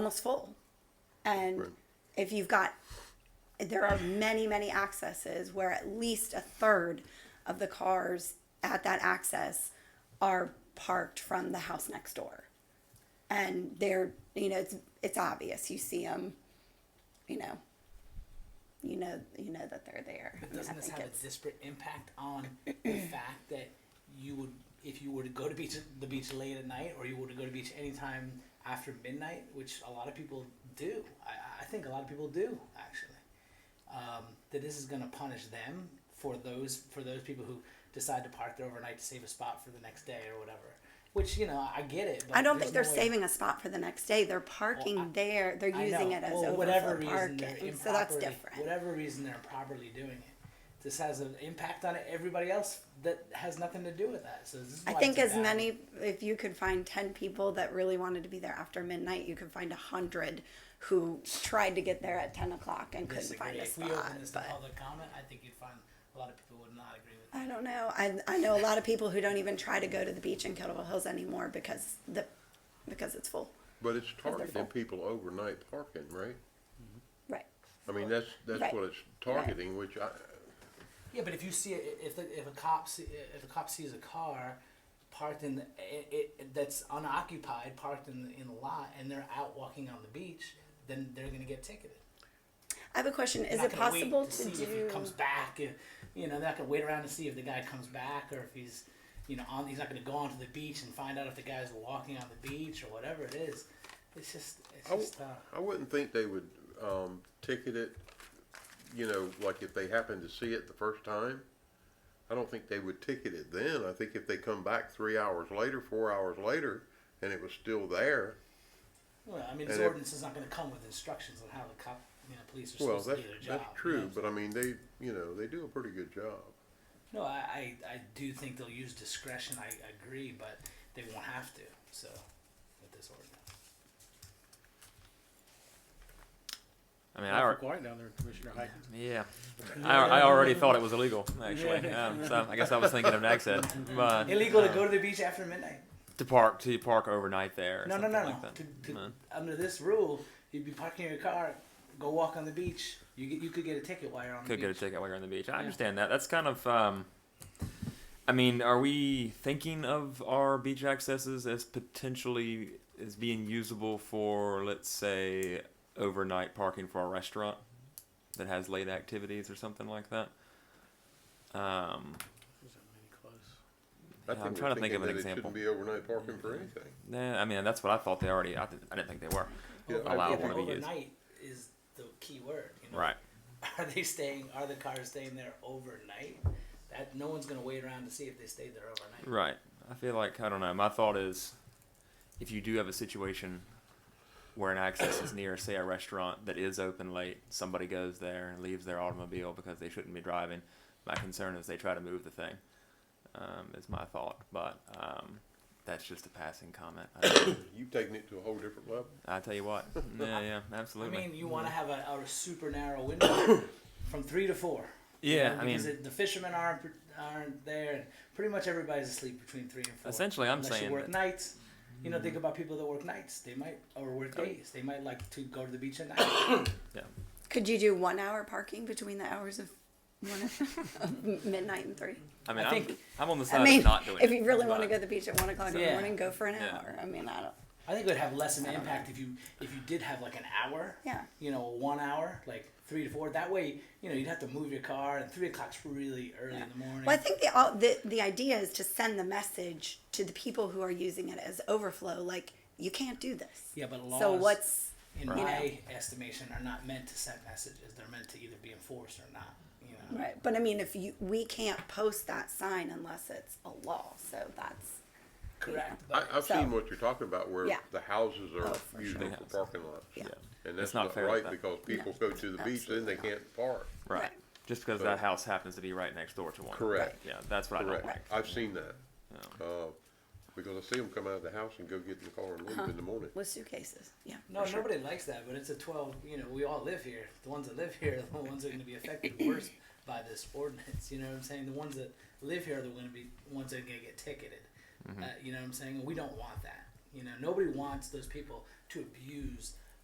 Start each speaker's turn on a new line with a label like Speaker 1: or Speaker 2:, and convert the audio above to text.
Speaker 1: almost full. And
Speaker 2: Right.
Speaker 1: if you've got, there are many, many accesses where at least a third of the cars at that access are parked from the house next door. And they're, you know, it's, it's obvious. You see them, you know, you know, you know that they're there. I mean, I
Speaker 3: Doesn't this
Speaker 1: think
Speaker 3: have a
Speaker 1: it's-
Speaker 3: disparate impact on the fact that you would, if you were to go to beach, the beach late at night, or you were to go to beach anytime after midnight, which a lot of people do. I, I think a lot of people do actually. Um, that this is going to punish them for those for those people who decide to park there overnight to save a spot for the next day or whatever. Which you know, I get it. But
Speaker 1: I don't think they're
Speaker 3: there's no way-
Speaker 1: saving a spot for the next day. They're parking
Speaker 3: I-
Speaker 1: there. They're
Speaker 3: I
Speaker 1: using
Speaker 3: know.
Speaker 1: it as
Speaker 3: well,
Speaker 1: overflow
Speaker 3: whatever reason they're
Speaker 1: parking. So that's
Speaker 3: improperly-
Speaker 1: different.
Speaker 3: Whatever reason they're improperly doing it, this has an impact on everybody else that has nothing to do with that. So this is
Speaker 1: I
Speaker 3: why
Speaker 1: think as
Speaker 3: it's a bad-
Speaker 1: many, if you could find 10 people that really wanted to be there after midnight, you could find 100 who tried to get there at 10 o'clock and couldn't
Speaker 3: disagree.
Speaker 1: find a
Speaker 3: If we
Speaker 1: spot.
Speaker 3: open this to
Speaker 1: But
Speaker 3: public comment, I think you'd find a lot of people would not agree with that.
Speaker 1: I don't know. I, I know a lot of people who don't even try to go to the beach in Kettleville Hills anymore because the because it's full.
Speaker 2: But it's
Speaker 1: they're full.
Speaker 2: targeting people overnight parking, right?
Speaker 1: Right.
Speaker 2: I mean, that's, that's
Speaker 1: Right.
Speaker 2: what it's targeting, which I,
Speaker 3: Yeah, but if you see it, if the, if a cop see, if a cop sees a car parked in the, it, it, that's unoccupied, parked in the, in the lot, and they're out walking on the beach, then they're gonna get ticketed.
Speaker 1: I have a question. Is
Speaker 3: Not
Speaker 1: it
Speaker 3: gonna wait
Speaker 1: possible
Speaker 3: to
Speaker 1: to,
Speaker 3: see
Speaker 1: do?
Speaker 3: if he comes back? If, you know, they're not gonna wait around to see if the guy comes back or if he's, you know, on. He's not gonna go onto the beach and find out if the guy's walking on the beach or whatever it is. It's just, it's
Speaker 2: I w-
Speaker 3: just. Uh,
Speaker 2: I wouldn't think they would, um, ticket it, you know, like if they happen to see it the first time. I don't think they would ticket it then. I think if they come back three hours later, four hours later, and it was still there,
Speaker 3: well, I mean, this
Speaker 2: and if-
Speaker 3: ordinance is not gonna come with instructions on how the cop, you know, police are
Speaker 2: well,
Speaker 3: supposed
Speaker 2: that's,
Speaker 3: to do their job.
Speaker 2: that's
Speaker 3: you know what
Speaker 2: true,
Speaker 3: I'm
Speaker 2: but I mean, they, you know, they do a pretty good job.
Speaker 3: No, I, I, I do think they'll use discretion. I agree, but they won't have to. So, with this ordinance,
Speaker 4: I mean, I, al-
Speaker 5: quiet down there, Commissioner Heikens.
Speaker 4: yeah, I, I already thought it was illegal actually.
Speaker 3: Yeah.
Speaker 4: Um, so I guess I was thinking of an exit, but
Speaker 3: illegal to
Speaker 4: uh,
Speaker 3: go to the beach after midnight.
Speaker 4: to park to park overnight there. Or
Speaker 3: No, no,
Speaker 4: something
Speaker 3: no,
Speaker 4: like
Speaker 3: no.
Speaker 4: that.
Speaker 3: To, to,
Speaker 4: No.
Speaker 3: Under this rule, you'd be parking your car, go walk on the beach. You get, you could get a ticket while you're on
Speaker 4: Could
Speaker 3: the
Speaker 4: get a
Speaker 3: beach.
Speaker 4: ticket while you're on the beach. I understand that. That's kind of. Um, I mean, are we thinking of our beach accesses as potentially as being usable for, let's say, overnight parking for a restaurant that has late activities or something like that? Um,
Speaker 2: I
Speaker 4: Yeah,
Speaker 2: we're
Speaker 4: I'm trying to think
Speaker 2: thinking
Speaker 4: of an
Speaker 2: that
Speaker 4: example.
Speaker 2: It shouldn't be overnight parking for anything.
Speaker 4: nah, I mean, that's what I thought they already. I, didn't- I didn't think they were.
Speaker 2: Yeah,
Speaker 3: Over-
Speaker 2: I-
Speaker 4: Allow
Speaker 3: yeah,
Speaker 4: one
Speaker 3: but
Speaker 4: to be used.
Speaker 3: Overnight is the key word. You know?
Speaker 4: Right.
Speaker 3: Are they staying? Are the cars staying there overnight? That no one's gonna wait around to see if they stayed there overnight.
Speaker 4: Right. I feel like I don't know. My thought is, if you do have a situation where an access is near, say a restaurant that is open late, somebody goes there and leaves their automobile because they shouldn't be driving. My concern is they try to move the thing. Um, is my thought, but um, that's just a passing comment. I,
Speaker 2: You've taken it to a whole different level.
Speaker 4: I tell you what. Yeah, yeah,
Speaker 3: I
Speaker 4: absolutely. Mm-hmm.
Speaker 3: mean, you want to have a, a super narrow window from three to four. you
Speaker 4: yeah,
Speaker 3: know,
Speaker 4: I
Speaker 3: because
Speaker 4: mean,
Speaker 3: it- the fishermen aren't aren't there, and pretty much everybody's asleep between three and four.
Speaker 4: essentially, I'm
Speaker 3: unless
Speaker 4: saying
Speaker 3: you work
Speaker 4: that-
Speaker 3: nights. You know,
Speaker 1: Mm-hmm.
Speaker 3: think about people that work nights. They might or work
Speaker 1: Oh.
Speaker 3: days. They might like to go to the beach at night.
Speaker 1: Could you do one hour parking between the hours of one of midnight and three?
Speaker 4: I mean,
Speaker 3: I
Speaker 4: I am
Speaker 3: think-
Speaker 4: I'm on the side
Speaker 1: I mean,
Speaker 4: of not doing
Speaker 1: if
Speaker 4: it,
Speaker 1: you really want to go
Speaker 4: but-
Speaker 1: to the beach at one o'clock in the
Speaker 3: Yeah.
Speaker 1: morning, go for an
Speaker 4: Yeah.
Speaker 1: hour. I mean, I don't.
Speaker 3: I think it would have less of an impact if you if you did have like an hour.
Speaker 1: Yeah.
Speaker 3: You know, one hour, like three to four. That way, you know, you'd have to move your car, and three o'clock's really early in the morning.
Speaker 1: Well, I think the, all, the the idea is to send the message to the people who are using it as overflow, like you can't do this.
Speaker 3: yeah, but laws.
Speaker 1: So what's
Speaker 3: in
Speaker 1: Right.
Speaker 3: my estimation, are not meant to send messages. They're meant to either be enforced or not. You know.
Speaker 1: right? But I mean, if you we can't post that sign unless it's a law, so that's
Speaker 3: Correct.
Speaker 2: I,
Speaker 3: But
Speaker 2: I've
Speaker 1: So-
Speaker 2: seen what you're talking about where
Speaker 1: Yeah.
Speaker 2: the houses
Speaker 1: Oh,
Speaker 2: are
Speaker 1: for
Speaker 2: used
Speaker 4: sure.
Speaker 2: for parking lots.
Speaker 1: Yeah.
Speaker 2: And that's
Speaker 4: It's not
Speaker 2: not
Speaker 4: fair
Speaker 2: right
Speaker 4: that-
Speaker 2: because people go to the beach, then
Speaker 1: absolutely
Speaker 2: they
Speaker 1: not.
Speaker 2: can't park.
Speaker 4: Right.
Speaker 1: Right.
Speaker 4: Just because
Speaker 2: So-
Speaker 4: that house happens to be right next door to one.
Speaker 2: Correct.
Speaker 4: Yeah, that's what I don't
Speaker 2: Correct.
Speaker 4: like.
Speaker 2: I've seen that. Uh, because I see them come out of the house and go get in the car and leave in the morning.
Speaker 1: with suitcases. Yeah.
Speaker 3: No,
Speaker 1: for sure.
Speaker 3: nobody likes that, but it's a 12, you know, we all live here. The ones that live here are the ones that are going to be affected worse by this ordinance. You know what I'm saying? The ones that live here are the going to be ones that are going to get ticketed.
Speaker 1: Mm-hmm.
Speaker 3: Uh, you know what I'm saying? We don't want that. You know, nobody wants those people to abuse